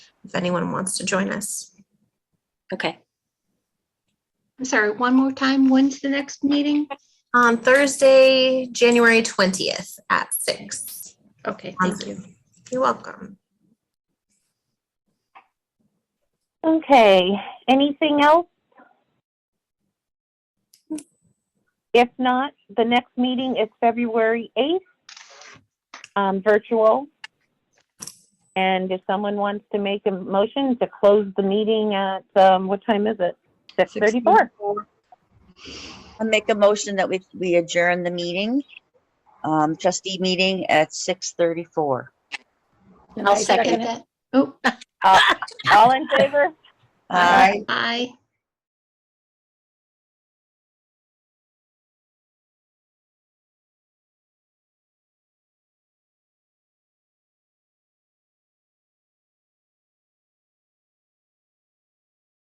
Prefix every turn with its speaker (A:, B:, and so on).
A: if anyone wants to join us.
B: Okay.
C: I'm sorry, one more time. When's the next meeting?
A: On Thursday, January 20th at six.
C: Okay,
A: on
C: thank you.
A: Zoom. You're welcome.
D: Okay, anything else? If not, the next meeting is February 8th, um, virtual. And if someone wants to make a motion to close the meeting at, um, what time is it? 6:34.
E: I make a motion that we, we adjourn the meeting, um, trustee meeting at six thirty-four.
C: I'll second that. Oh,
D: Uh, All in favor?
C: aye. Aye.